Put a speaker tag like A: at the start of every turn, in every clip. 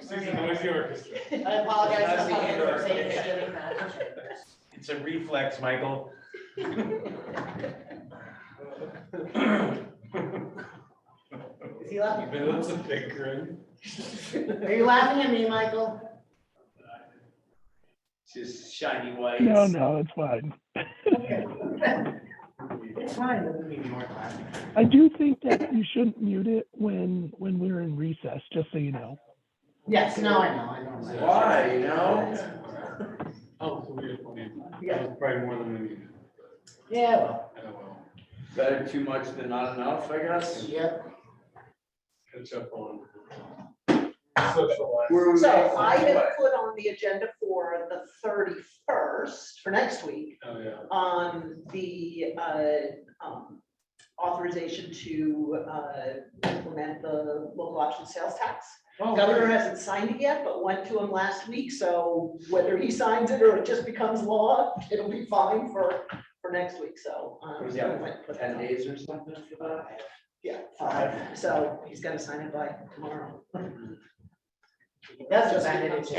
A: is the noisy orchestra.
B: I apologize
C: That's
B: for
C: the
B: coming
C: indoor
B: for saying
C: space.
B: giving that.
C: It's a reflex, Michael.
B: Is he laughing?
A: But that's a big grin.
B: Are you laughing at me, Michael?
C: Just shiny white.
D: No, no, it's fine.
B: It's fine.
D: I do think that you shouldn't mute it when, when we're in recess, just so you know.
B: Yes, no, I know, I know.
C: Why, you know?
A: Oh, it's a weird one.
B: Yeah.
A: That was probably more than we needed.
B: Yeah, well,
A: Oh, well.
C: Better too much than not enough, I guess.
B: yep.
A: Catch up on. Social life.
C: Where we-
E: So I have put on the agenda for the thirty-first, for next week,
A: Oh, yeah.
E: on the uh, um, authorization to uh, implement the local option sales tax.
A: Oh,
E: Governor hasn't signed it yet, but went to him last week, so whether he signs it or it just becomes law, it'll be fine for, for next week, so. um,
C: What is that,
E: went- put that
C: Ten
E: on.
C: days or something for that?
E: Yeah, five, so he's gotta sign it by tomorrow.
B: That's just added into.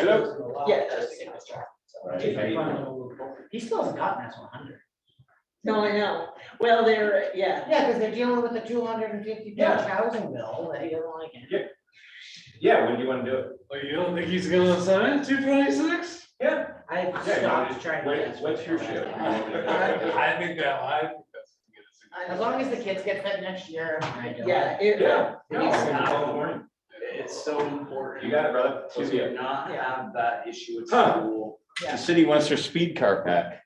E: Yeah, just to get it started.
B: He still hasn't gotten us one hundred.
E: No, I know. Well, they're, yeah,
B: Yeah, because they're dealing with a two hundred and fifty
C: Yeah.
B: page housing bill that he doesn't like. it.
C: Yeah, when do you wanna do it?
A: Oh, you don't think he's gonna sign two twenty-six?
C: Yeah.
B: I
C: Yeah,
B: stopped trying to.
C: When-
B: guess
C: what's your
B: what
C: shift?
B: it was.
A: I think that, I think that's.
E: I
B: As long as the kids get fed next year, I do.
E: yeah, it,
C: Yeah.
E: no, it's
C: It's so important. You got it, brother. To not
E: Yeah.
C: have that issue at
A: Huh.
C: school.
E: yeah.
F: The city wants their speed car back.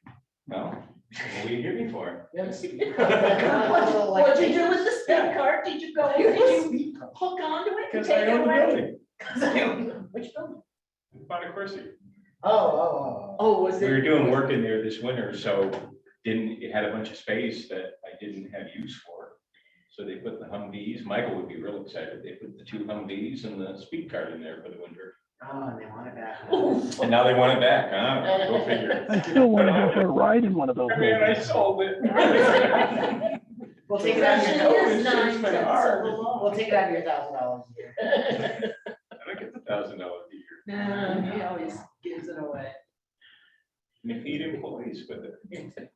C: No. What are you here before?
E: What'd you- What'd you do with the spin cart? Did you go, did you hook onto it and
C: Because I
E: take it
C: own the
E: away?
C: building.
B: Which building?
A: Find a Corsi.
B: Oh, oh, oh,
E: Oh, was
F: We were
E: it?
F: doing work in there this winter, so didn't, it had a bunch of space that I didn't have use for. So they put the Humvees, Michael would be real excited, they put the two Humvees and the speed car in there for the winter.
B: oh, and they want it back.
E: Oh,
F: And now they want it back, huh? Go figure.
D: I still wanna go for a ride in one of those.
F: I mean, I
D: buildings.
F: sold it.
B: We'll take it out of your,
E: It
B: thousand-
E: is nine cents a little.
B: we'll take it out of your thousand dollars a year.
F: And I get the thousand dollars a year.
E: Nah, he always gives it away.
F: And they feed employees with it.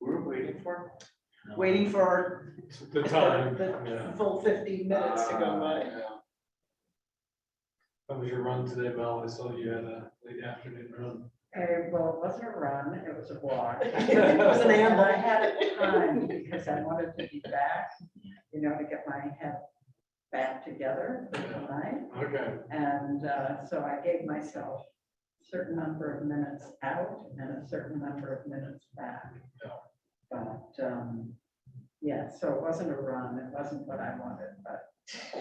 C: We're waiting for.
E: Waiting for
A: The time, yeah.
E: the full fifteen minutes to go by.
A: How was your run today, Mel? I saw you had a late afternoon run.
G: Okay, well, it wasn't a run, it was a walk.
E: It was an
G: And I
E: amble.
G: had a time because I wanted to be back, you know, to get my head back together for tonight.
A: Okay.
G: And uh, so I gave myself a certain number of minutes out and a certain number of minutes back.
A: Yeah.
G: But, um, yeah, so it wasn't a run, it wasn't what I wanted, but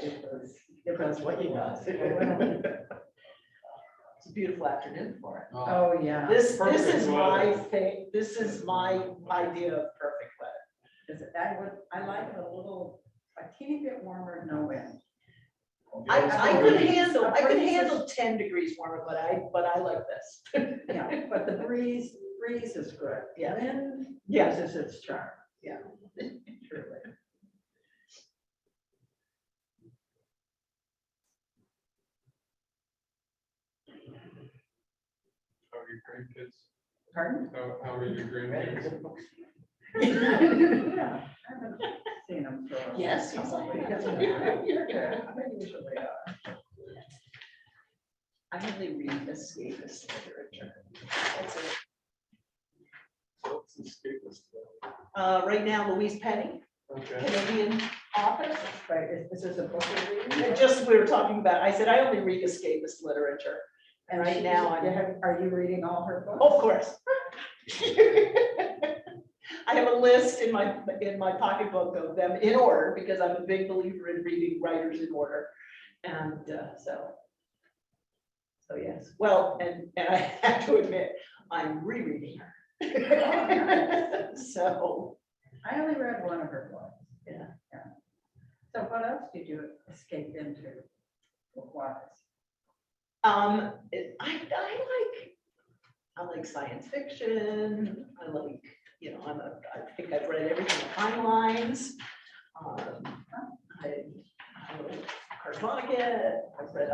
G: it was, it was what you was.
E: It's a beautiful afternoon for it.
A: Oh,
G: Oh, yeah.
E: This, this
A: Perfect
E: is my
A: weather.
E: thing, this is my idea of perfect weather.
G: Is it, I would, I like it a little, a teeny bit warmer, no wind.
E: I, I could handle, I could
G: Breeze is-
E: handle ten degrees warmer, but I, but I like this.
G: Yeah, but the breeze, breeze is good.
E: Yeah.
G: Wind
E: Yeah.
G: loses its charm.
E: Yeah.
G: Truly.
A: How are your grandkids?
G: Pardon?
A: How, how are your grandkids?
G: Yeah, I haven't Seen them for. a
E: Yes, he's
G: couple
E: like,
G: weeks.
E: you're good.
G: Yeah, they usually are.
E: I only read this, read this literature. That's it.
A: What's the status though?
E: Uh, right now Louise Penny,
A: Okay.
E: Canadian author,
G: But is, is this a book you're
E: And
G: reading?
E: just, we were talking about, I said, I only read escapist literature.
G: And
E: right
G: she's-
E: now I'm-
G: you have- Are you reading all her books?
E: Of course. I have a list in my, in my pocketbook of them in order, because I'm a big believer in reading writers in order. And uh, so. So yes, well, and, and I have to admit, I'm rereading her. So,
G: I only read one of her books.
E: Yeah.
G: Yeah. So what else did you escape into? book wise?
E: um, it- I, I like, I like science fiction, I like, you know, I'm a, I think I've read everything, timelines. Um, I, I like Harmonica, I've read